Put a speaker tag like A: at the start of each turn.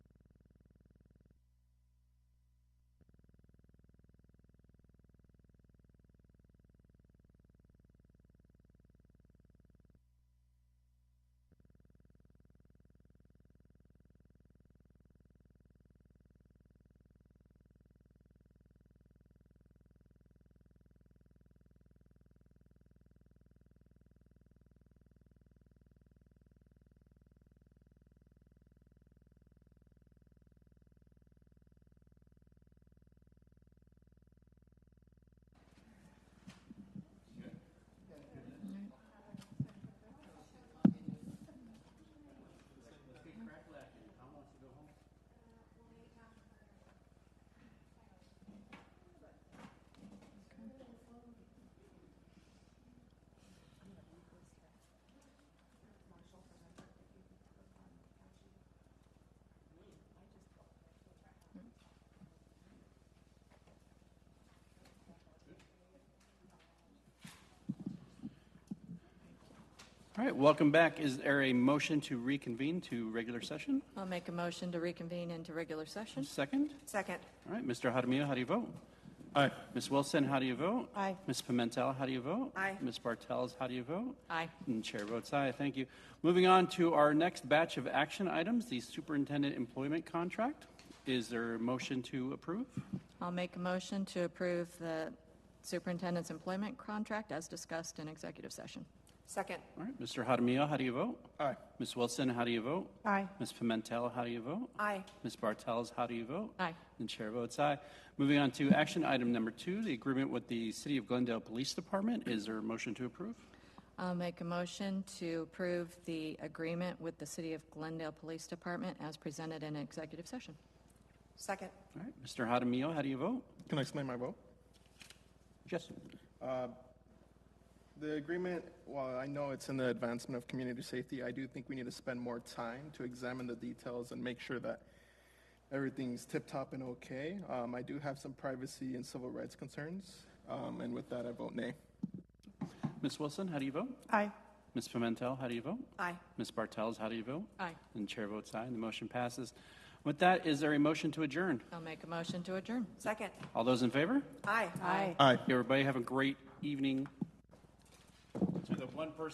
A: All right, welcome back. Is there a motion to reconvene to regular session?
B: I'll make a motion to reconvene into regular session.
A: Second?
C: Second.
A: All right, Mr. Jaramillo, how do you vote? Aye. Ms. Wilson, how do you vote?
B: Aye.
A: Ms. Pimentel, how do you vote?
C: Aye.
A: Ms. Bartels, how do you vote?
B: Aye.
A: And chair votes aye. Thank you. Moving on to our next batch of action items, the superintendent employment contract. Is there a motion to approve?
B: I'll make a motion to approve the superintendent's employment contract as discussed in executive session.
C: Second.
A: All right, Mr. Jaramillo, how do you vote? Aye. Ms. Wilson, how do you vote?
C: Aye.
A: Ms. Pimentel, how do you vote?
C: Aye.
A: Ms. Bartels, how do you vote?
B: Aye.
A: And chair votes aye. Moving on to action item number two, the agreement with the City of Glendale Police Department. Is there a motion to approve?
B: I'll make a motion to approve the agreement with the City of Glendale Police Department as presented in executive session.
C: Second.
A: All right, Mr. Jaramillo, how do you vote?
D: Can I explain my vote?
A: Yes.
D: Uh, The agreement, while I know it's in the advancement of community safety, I do think we need to spend more time to examine the details and make sure that everything's tip-top and okay. Um, I do have some privacy and civil rights concerns, um, and with that, I vote nay.
A: Ms. Wilson, how do you vote?
C: Aye.
A: Ms. Pimentel, how do you vote?
C: Aye.
A: Ms. Bartels, how do you vote?
B: Aye.
A: And chair votes aye, and the motion passes. With that, is there a motion to adjourn?
B: I'll make a motion to adjourn.
C: Second.
A: All those in favor?
C: Aye.
B: Aye.
D: Aye.
A: Everybody have a great evening. To the one person